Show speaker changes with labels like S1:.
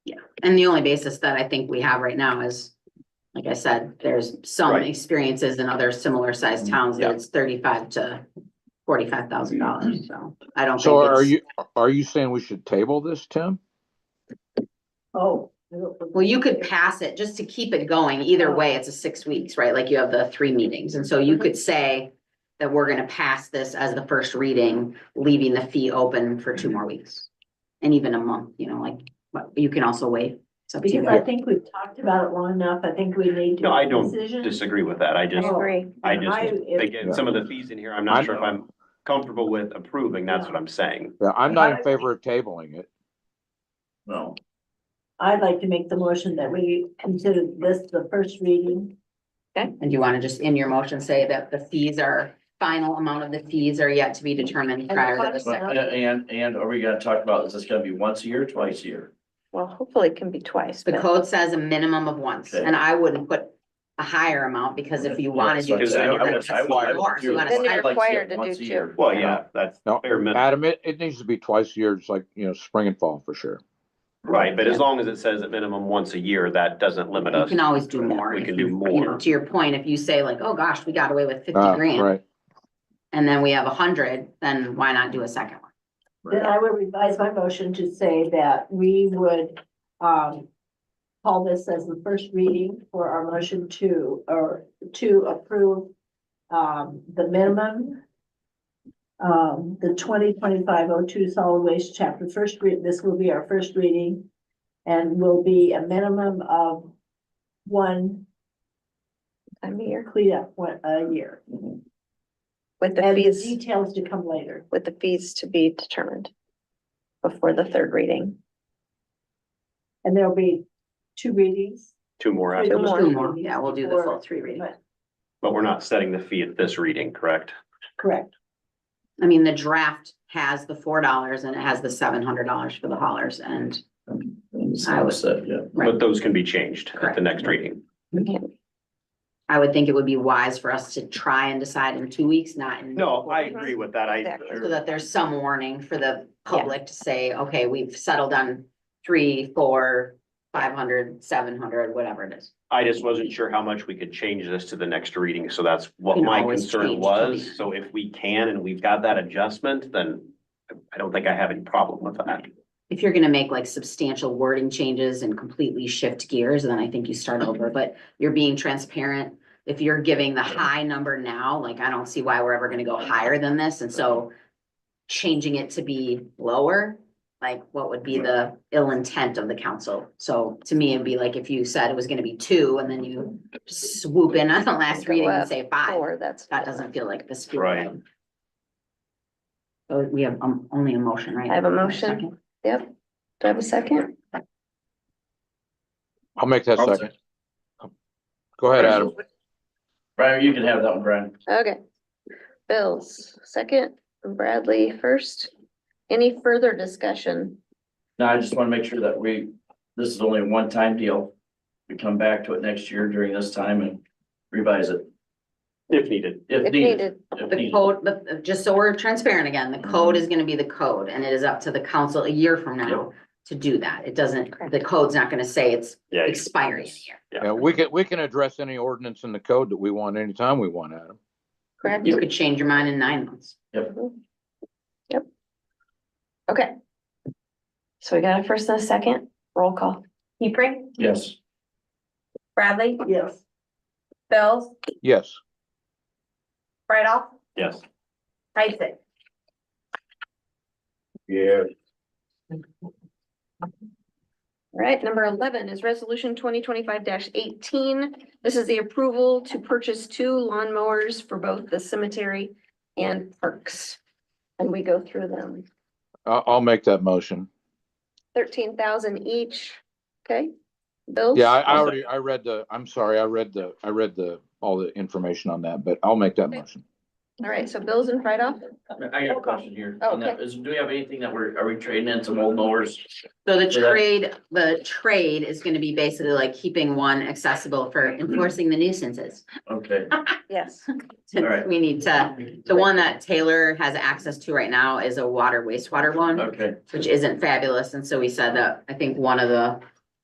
S1: And the only basis that I think we have right now is, like I said, there's some
S2: Right.
S1: experiences in other similar sized towns that
S2: Yeah.
S1: it's thirty-five to forty-five thousand dollars, so I don't
S3: So are
S1: think it's.
S3: you, are you saying we should table this, Tim?
S4: Oh.
S1: Well, you could pass it just to keep it going. Either way, it's a six weeks, right? Like you have the three meetings, and so you could say that we're gonna pass this as the first reading, leaving the fee open for two more weeks. And even a month, you know, like, but you can also wait. It's up to
S4: Because
S1: you.
S4: I think we've talked about it long enough. I think we need to.
S2: No, I
S4: make a
S2: don't
S4: decision. Oh,
S2: disagree with that. I just,
S5: agree.
S2: I
S4: I-
S2: just,
S4: if-
S2: again, some of the fees in here, I'm
S3: I'm-
S2: not sure if I'm comfortable with approving. That's what I'm saying.
S3: Yeah, I'm not in favor of tabling it.
S6: No,
S4: I'd like to make the motion that we consider this the first reading.
S1: And do you want to just in your motion say that the fees are, final amount of the fees are yet to be determined prior to the
S4: But-
S1: second?
S6: and, uh, and, and are we gonna talk about, is this gonna be once a year, twice a year?
S5: Well, hopefully it can be twice,
S1: The
S5: but-
S1: code says a minimum of once, and I wouldn't put a higher amount because if you wanted to.
S6: Yeah, that's what I'm saying. I would- I would- I would
S1: More, so you
S6: do-
S1: want
S5: Then you're
S6: I'd
S1: to-
S6: like to see it
S5: required to do
S6: once a
S5: two.
S6: year.
S2: Well, yeah, that's
S3: No,
S2: fair minimum.
S3: Adam, it, it needs to be twice a year, it's like, you know, spring and fall for sure.
S2: Right, but as long as it says at minimum once a year, that doesn't limit
S1: You
S2: us.
S1: can always do more.
S2: We
S1: if
S2: can do
S1: you- You know,
S2: more.
S1: to your point, if you say like, oh gosh, we got away with fifty
S3: Ah,
S1: grand,
S3: Right,
S1: and then we have a hundred, then why not do a second one?
S4: Then I would revise my motion to say that we would, um, call this as the first reading for our motion to, or to approve, um, the minimum, um, the twenty twenty-five oh two solid waste chapter first read, this will be our first reading and will be a minimum of one
S5: Time of year,
S4: cleanup one, a year.
S5: with the
S4: And the
S5: fees,
S4: details to come later.
S5: with the fees to be determined before the third reading.
S4: And there'll be two readings.
S2: Two more after
S5: Two
S2: this,
S5: more.
S1: Two more, yeah, we'll do the full three reading.
S4: But-
S2: but we're not setting the fee at this reading, correct?
S4: Correct.
S1: I mean, the draft has the four dollars and it has the seven hundred dollars for the haulers and I would-
S6: Sunset, yeah.
S1: Right.
S2: But those can be changed at
S1: Correct.
S2: the next reading.
S1: I would think it would be wise for us to try and decide in two weeks, not in.
S2: No, I agree with that. I,
S5: Exactly.
S1: So that there's some warning for the public to say, okay, we've settled on three, four, five hundred, seven hundred, whatever it is.
S2: I just wasn't sure how much we could change this to the next reading, so that's what
S1: Can
S2: my
S1: always
S2: concern
S1: change till the
S2: was.
S1: end.
S2: So if we can and we've got that adjustment, then I don't think I have any problem with that.
S1: If you're gonna make like substantial wording changes and completely shift gears, then I think you start over, but you're being transparent. If you're giving the high number now, like I don't see why we're ever gonna go higher than this, and so changing it to be lower, like what would be the ill intent of the council? So to me, it'd be like if you said it was gonna be two and then you swoop in on the last
S5: Go
S1: reading and
S5: up
S1: say five.
S5: Or that's.
S1: That doesn't feel like the spirit.
S2: Right.
S1: of- Oh, we have um only a motion, right?
S5: I have a
S1: Or
S5: motion.
S1: second?
S5: Yep. Do I have a second?
S3: I'll make that
S6: I'll
S3: second. Go ahead, Adam.
S6: Brian, you can have that one, Brian.
S5: Okay. Bills, second, Bradley first. Any further discussion?
S6: No, I just wanna make sure that we, this is only a one-time deal. We come back to it next year during this time and revise it
S2: If needed,
S6: if
S5: If
S6: needed.
S5: needed,
S6: if
S1: The
S6: needed.
S1: code, the, just so we're transparent again, the code
S6: Mm-hmm.
S1: is gonna be the code and it is up to the council a year from now to do that. It doesn't, the code's not gonna say it's
S2: yeah, you-
S1: expiring here.
S3: Yeah, we can, we can address any ordinance in the code that we want anytime we want, Adam.
S5: correct?
S1: You could change your mind in nine months.
S5: Yep. Okay. So we got a first and a second, roll call.
S7: Hebrink,
S6: Yes.
S7: Bradley,
S4: Yes.
S7: Bills,
S3: Yes,
S7: right off,
S2: yes.
S7: Isaac.
S6: Yeah.
S5: All right, number eleven is resolution twenty twenty-five eighteen. This is the approval to purchase two lawnmowers for both the cemetery and parks. And we go through them,
S3: I, I'll make that motion.
S5: thirteen thousand each, okay? Bills?
S3: Yeah, I, I
S2: I'll
S3: already, I read the, I'm sorry, I read the, I read the, all the information on that, but I'll make that
S5: Okay.
S3: motion.
S5: All right, so bills and write-off,
S6: I got a question here.
S5: Oh,
S6: on that. Is, do we have anything that we're, are we trading in some old mowers?
S1: So the
S6: Yeah.
S1: trade, the trade is gonna be basically like keeping one accessible for
S6: Mm-hmm.
S1: enforcing the nuisances.
S6: Okay.
S5: yes.
S6: All right.
S1: We need to, the one that Taylor has access to right now is a water wastewater one.
S6: Okay,
S1: which isn't fabulous, and so we said that, I think one of the